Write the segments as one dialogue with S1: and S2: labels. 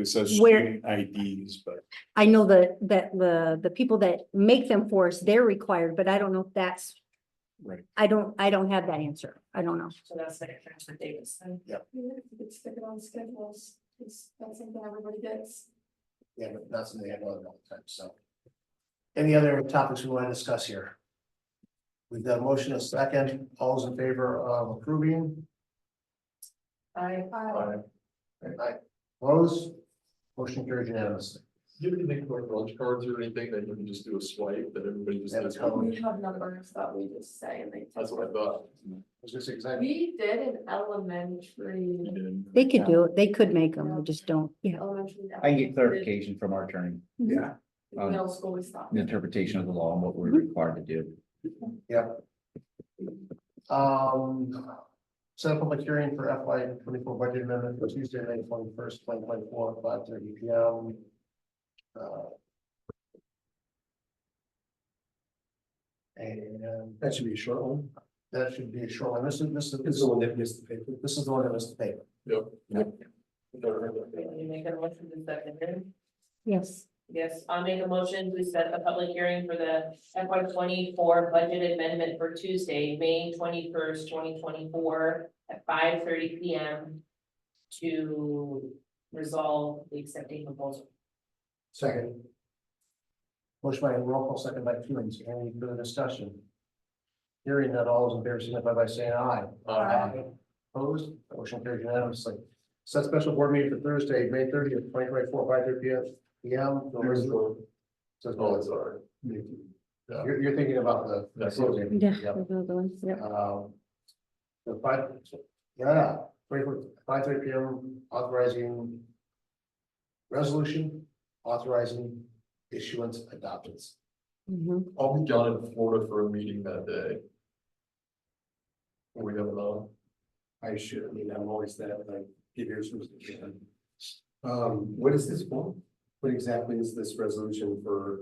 S1: It says
S2: Where-
S1: student IDs, but
S2: I know that, that the, the people that make them for us, they're required, but I don't know if that's,
S1: right,
S2: I don't, I don't have that answer. I don't know.
S3: So that's like a transfer Davis thing.
S1: Yeah.
S4: Yeah, if you could stick it on schedules, it's, that's something everybody gets.
S5: Yeah, but that's something I know about all the time, so. Any other topics we want to discuss here? We've got a motion a second, all's in favor of approving,
S3: I,
S4: Uh,
S5: I oppose, motion carried unanimously.
S6: Do you have anything like lunch cards or anything that you can just do a swipe that everybody just
S5: Yeah,
S6: has?
S5: tell
S6: one?
S5: them.
S4: We have numbers that we just say and they.
S6: That's what I thought.
S5: I was gonna say, 'cause I-
S4: We did an elementary,
S6: And-
S2: They could do it. They could make them. We just don't, yeah.
S4: elementary.
S7: I can get clarification from our attorney,
S4: Yeah.
S7: on
S4: Middle school, we stopped.
S7: the interpretation of the law and what we're required to do.
S5: Um, set a public hearing for FY twenty-four budget amendment for Tuesday, May twenty-first, twenty twenty-four, five thirty P M. Uh, And
S8: That should be a short one.
S5: that should be a short one. This is, this is,
S8: This is the one that missed the paper.
S5: this is the one that was the paper.
S6: Yep.
S3: Can you make a motion to set the hearing?
S2: Yes.
S3: Yes, I make a motion to set a public hearing for the FY twenty-four budget amendment for Tuesday, May twenty-first, twenty twenty-four at five thirty P M. To resolve the accepting proposal.
S5: Second. Motion by roll call, second by Keelings. Any further discussion? Hearing that all is in favor, signify by saying aye.
S4: Aye.
S5: Opposed, motion carried unanimously. Set special board meeting for Thursday, May thirtieth, twenty twenty-four, five thirty P M. P M. The resolution- says,
S6: Oh,
S5: oh,
S6: it's
S5: it's-
S6: all right. Yeah.
S5: You're, you're thinking about the. the
S6: That's it.
S5: closing.
S2: Yeah.
S5: Yep.
S2: those are the ones, yeah.
S5: Um, The five, yeah, twenty four, five thirty P M authorizing. Resolution authorizing issuance adoptions.
S2: Mhm.
S6: I'll be down in Florida for a meeting that day. Will We have another.
S8: I should, I mean, I'm always that, like, give yours was the kid. Um, what is this for? What exactly is this resolution for?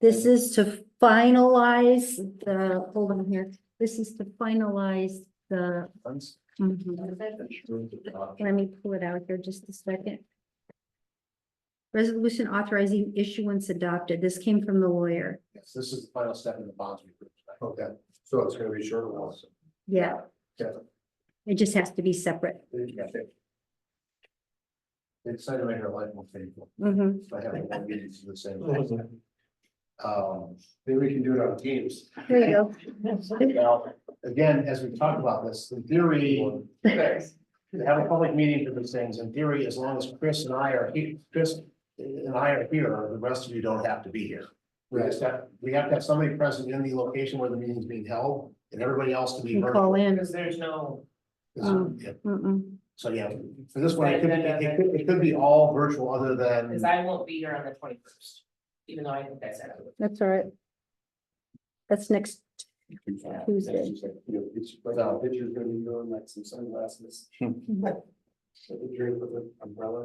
S2: This is to finalize the, hold on here. This is to finalize the,
S5: Funds.
S2: mhm. let me pull it out here just a second. Resolution authorizing issuance adopted. This came from the lawyer.
S5: Yes, this is the final step in the bonds we approved. tonight.
S8: Okay, so it's gonna be short one.
S2: Yeah.
S5: Yeah.
S2: It just has to be separate.
S5: They decided to make our life more painful
S2: Mhm.
S5: by having one meeting to the same. thing. Um,
S8: Maybe we can do it on Teams.
S2: There you go.
S5: now, again, as we talked about this, in theory, to have a public meeting for these things, in theory, as long as Chris and I are here, Chris and I are here, the rest of you don't have to be here. We just have, we have to have somebody present in the location where the meeting's being held, and everybody else can be
S2: You call
S5: virtual.
S2: in.
S3: Because there's no,
S2: Mm.
S5: Yeah,
S2: Mm-mm.
S5: So, yeah, for this one, it could, it could, it could be all virtual other
S3: because
S5: than,
S3: I won't be here on the twenty-first, even though I think that's out of the
S2: That's all right. That's next Tuesday.
S8: It's, but the picture's gonna be going like some sunglasses. With a drink with an umbrella.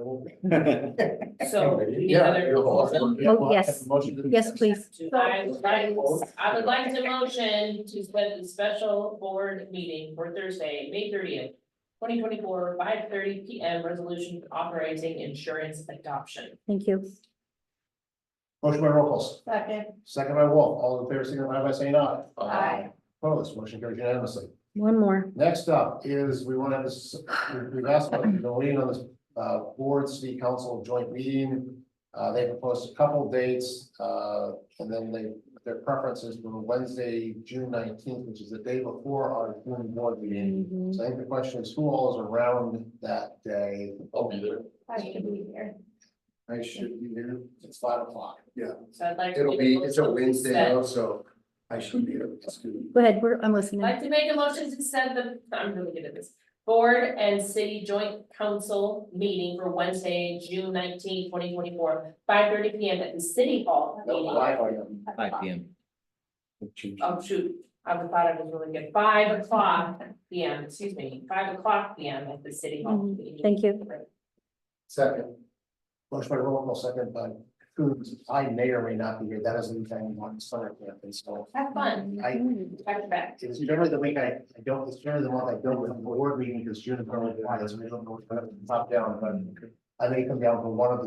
S3: So, any
S5: Yeah,
S3: other
S5: you're all-
S3: proposals?
S2: Oh, yes. Yes, please.
S3: I would like, I would like to motion to set the special board meeting for Thursday, May thirtieth, twenty twenty-four, five thirty P M, resolution authorizing insurance adoption.
S2: Thank you.
S5: motion by Robles,
S4: Second.
S5: second by Wolf, all in favor, signify by saying aye.
S4: Aye.
S5: Opposed, motion carried unanimously.
S2: One more.
S5: Next up is, we want to have this, we- we've asked about the lean on this, uh, board city council joint meeting. Uh, they proposed a couple dates, uh, and then they, their preferences were Wednesday, June nineteenth, which is the day before our June board meeting.
S2: Mhm.
S5: So I think the question is, who all is around that day?
S6: I'll be there.
S4: I should be here.
S8: I should be there.
S5: It's five o'clock.
S3: So I'd like. to
S8: It'll
S3: make
S8: be, it's a
S3: motion to
S8: Wednesday
S3: set-
S8: though, so I should be there. It's good.
S2: Go ahead, we're, I'm
S3: I'd
S2: listening.
S3: Like to make a motion to set the, I'm really good at this, board and city joint council meeting for Wednesday, June 19, 2024, five thirty P M at the city hall
S8: Oh,
S3: meeting.
S5: Five a.m.
S7: Five P M.
S3: Oh, shoot, I would thought it was really good, five o'clock P M, excuse me, five o'clock P M at the city hall.
S2: Mhm, Thank you.
S5: Second. Motion by roll call, second by Coons. I may or may not be here. That is the time on summer camp, and so
S3: Have fun,
S5: I,
S3: back to back.
S5: It's generally the week I, I don't, it's generally the month I don't have a board meeting because June is normally the one, that's when I don't know what's going to pop down, but. I may come down for one of the